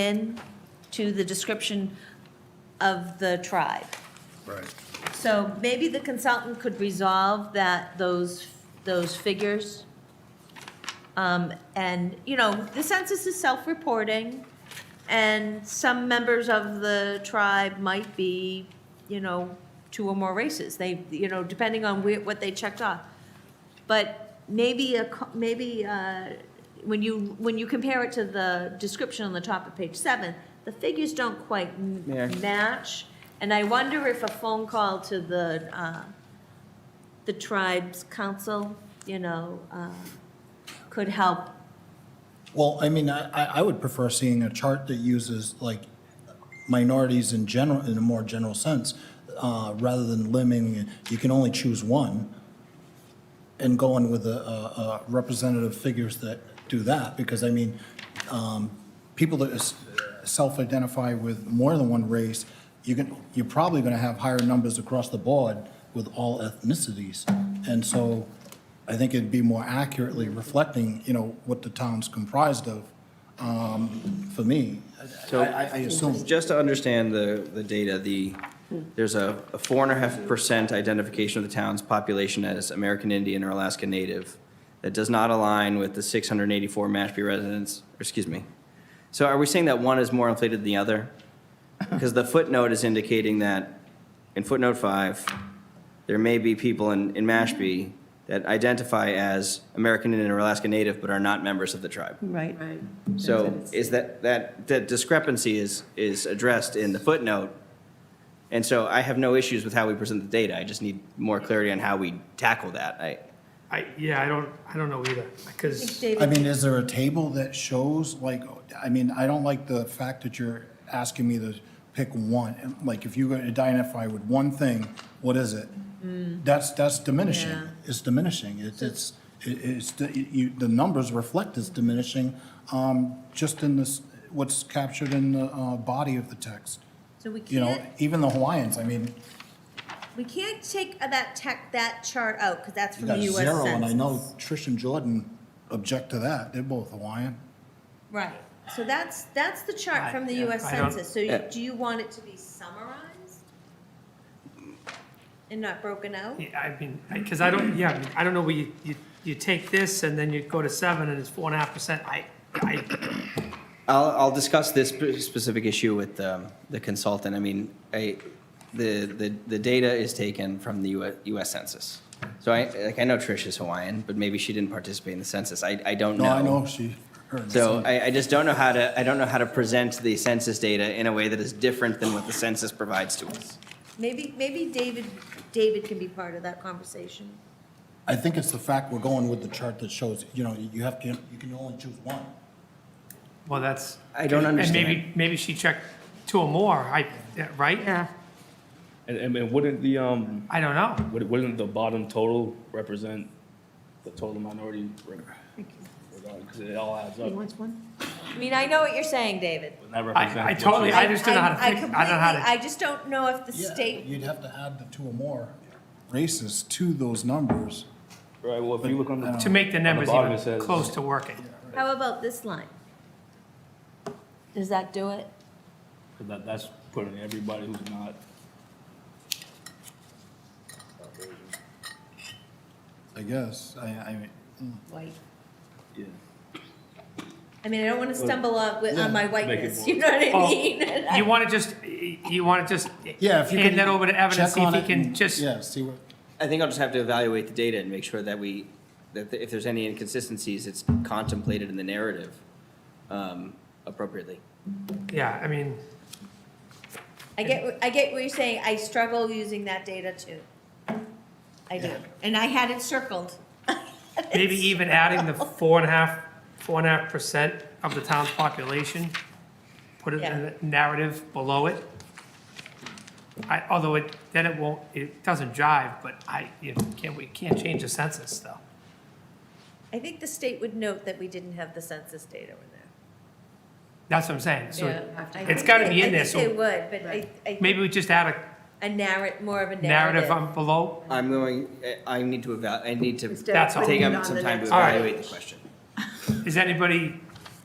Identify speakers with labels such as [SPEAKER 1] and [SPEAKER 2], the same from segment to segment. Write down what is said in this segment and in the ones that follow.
[SPEAKER 1] in to the description of the tribe.
[SPEAKER 2] Right.
[SPEAKER 1] So maybe the consultant could resolve that, those, those figures. Um, And, you know, the census is self-reporting, and some members of the tribe might be, you know, two or more races. They, you know, depending on where, what they checked off. But maybe, a co- maybe uh, when you, when you compare it to the description on the top of page seven, the figures don't quite m-
[SPEAKER 3] Yeah.
[SPEAKER 1] match. And I wonder if a phone call to the, uh, the tribe's council, you know, uh, could help.
[SPEAKER 2] Well, I mean, I, I- I would prefer seeing a chart that uses like minorities in general, in a more general sense, uh, rather than limiting, you can only choose one, and going with a, a representative figures that do that, because I mean, um, people that is- self-identify with more than one race, you can, you're probably gonna have higher numbers across the board with all ethnicities. And so I think it'd be more accurately reflecting, you know, what the town's comprised of, um, for me. I,
[SPEAKER 3] So-
[SPEAKER 2] I I assume.
[SPEAKER 3] Just to understand the, the data, the, there's a a four and a half percent identification of the town's population as American Indian or Alaska Native. That does not align with the six hundred and eighty-four Mashpee residents, or excuse me. So are we saying that one is more inflated than the other? Because the footnote is indicating that, in footnote five, there may be people in, in Mashpee that identify as American Indian or Alaska Native but are not members of the tribe.
[SPEAKER 1] Right.
[SPEAKER 4] Right.
[SPEAKER 3] So is that, that, that discrepancy is, is addressed in the footnote. And so I have no issues with how we present the data. I just need more clarity on how we tackle that. I,
[SPEAKER 5] I, yeah, I don't, I don't know either, because,
[SPEAKER 1] David,
[SPEAKER 2] I mean, is there a table that shows, like, I mean, I don't like the fact that you're asking me to pick one. And, Like, if you were to identify with one thing, what is it? That's, that's diminishing.
[SPEAKER 1] Mm. Yeah.
[SPEAKER 2] It's diminishing. It's, it's, it- it's, the- you, the numbers reflect it's diminishing, um, just in this, what's captured in the, uh, body of the text.
[SPEAKER 1] So we
[SPEAKER 2] You know,
[SPEAKER 1] can't,
[SPEAKER 2] even the Hawaiians, I mean,
[SPEAKER 1] we can't take that tech, that chart out, because that's
[SPEAKER 2] you
[SPEAKER 1] from the
[SPEAKER 2] got
[SPEAKER 1] US
[SPEAKER 2] zero, and I know
[SPEAKER 1] Census.
[SPEAKER 2] Trish and Jordan object to that. They're both Hawaiian.
[SPEAKER 1] Right, so that's, that's the chart from the
[SPEAKER 5] I-
[SPEAKER 1] US
[SPEAKER 5] I don't-
[SPEAKER 1] Census, so you-
[SPEAKER 3] Yeah.
[SPEAKER 1] do you want it to be summarized? And not broken out?
[SPEAKER 5] yeah, I mean, because I don't, yeah, I mean, I don't know, where you, you, you take this and then you go to seven and it's four and a half percent, I, I,
[SPEAKER 3] I'll, I'll discuss this spe- specific issue with um, the consultant. I mean, I, the, the, the data is taken from the US US Census. So I, like, I know Trish is Hawaiian, but maybe she didn't participate in the census. I, I don't know.
[SPEAKER 2] No, I know she. her and
[SPEAKER 3] So
[SPEAKER 2] son.
[SPEAKER 3] I, I just don't know how to, I don't know how to present the census data in a way that is different than what the census provides to us.
[SPEAKER 1] Maybe, maybe David, David can be part of that conversation.
[SPEAKER 2] I think it's the fact we're going with the chart that shows, you know, you have to, you can only choose one.
[SPEAKER 5] well, that's.
[SPEAKER 3] I don't
[SPEAKER 5] And
[SPEAKER 3] understand.
[SPEAKER 5] maybe, maybe she checked two or more, I, yeah, right?
[SPEAKER 4] Yeah,
[SPEAKER 6] And, and, and wouldn't the, um,
[SPEAKER 5] I don't know,
[SPEAKER 6] would- wouldn't the bottom total represent the total minority? rate? Because it all adds
[SPEAKER 4] he
[SPEAKER 6] up.
[SPEAKER 4] wants one.
[SPEAKER 1] I mean, I know what you're saying, David.
[SPEAKER 6] Wouldn't that
[SPEAKER 5] I,
[SPEAKER 6] represent
[SPEAKER 5] I
[SPEAKER 6] what
[SPEAKER 5] totally,
[SPEAKER 6] you-
[SPEAKER 5] I just don't know how to
[SPEAKER 1] I- I
[SPEAKER 5] fix, I don't know how
[SPEAKER 1] completely-
[SPEAKER 5] to,
[SPEAKER 1] I just don't know if the state,
[SPEAKER 2] You'd have to add the two or more races to those numbers.
[SPEAKER 6] Right, well, if you look on the.
[SPEAKER 5] to make the
[SPEAKER 6] on
[SPEAKER 5] numbers
[SPEAKER 6] bottom, it
[SPEAKER 5] even
[SPEAKER 6] says-
[SPEAKER 5] close to working.
[SPEAKER 1] how about this line? Does that do it?
[SPEAKER 6] 'cause That, that's putting everybody who's not.
[SPEAKER 2] I guess, I, I mean,
[SPEAKER 1] White.
[SPEAKER 6] Yeah.
[SPEAKER 1] I mean, I don't want to stumble on, with- on my whiteness,
[SPEAKER 6] more-
[SPEAKER 1] you know what I
[SPEAKER 5] Oh,
[SPEAKER 1] mean?
[SPEAKER 5] You want to just, you want to just
[SPEAKER 2] yeah, if you can.
[SPEAKER 5] hand that over to Evan and
[SPEAKER 2] check
[SPEAKER 5] see if
[SPEAKER 2] on
[SPEAKER 5] he
[SPEAKER 2] it
[SPEAKER 5] can
[SPEAKER 2] and-
[SPEAKER 5] just,
[SPEAKER 2] Yeah, see what,
[SPEAKER 3] I think I'll just have to evaluate the data and make sure that we, that if there's any inconsistencies, it's contemplated in the narrative um, appropriately.
[SPEAKER 5] yeah, I mean,
[SPEAKER 1] I get, what- I get what you're saying, I struggle using that data too. I do, and I had it circled.
[SPEAKER 5] maybe e- even adding the four and a half, four and a half percent of the town's population, put it in
[SPEAKER 1] Yeah.
[SPEAKER 5] the narrative below it. I, although it, then it won't, it doesn't jive, but I, you can't, we can't change the census though.
[SPEAKER 1] I think the state would note that we didn't have the census data in there.
[SPEAKER 5] That's what I'm saying,
[SPEAKER 1] Yeah,
[SPEAKER 5] so
[SPEAKER 1] I
[SPEAKER 5] it's
[SPEAKER 1] think
[SPEAKER 5] gotta
[SPEAKER 1] they-
[SPEAKER 5] be in there,
[SPEAKER 1] I think
[SPEAKER 5] so
[SPEAKER 1] they would, but I, I, think
[SPEAKER 5] maybe we just add a
[SPEAKER 1] a narrat, more of a
[SPEAKER 5] narrative
[SPEAKER 1] narrative.
[SPEAKER 5] on below.
[SPEAKER 3] I'm going, I I need to eval, I need to
[SPEAKER 4] Instead
[SPEAKER 3] take
[SPEAKER 4] of
[SPEAKER 5] That's all.
[SPEAKER 4] putting it
[SPEAKER 3] up
[SPEAKER 4] on
[SPEAKER 3] some
[SPEAKER 4] the
[SPEAKER 3] time to
[SPEAKER 4] next-
[SPEAKER 5] All right.
[SPEAKER 3] evaluate the question.
[SPEAKER 5] Is anybody,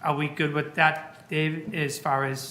[SPEAKER 5] are we good with that Dave, as far as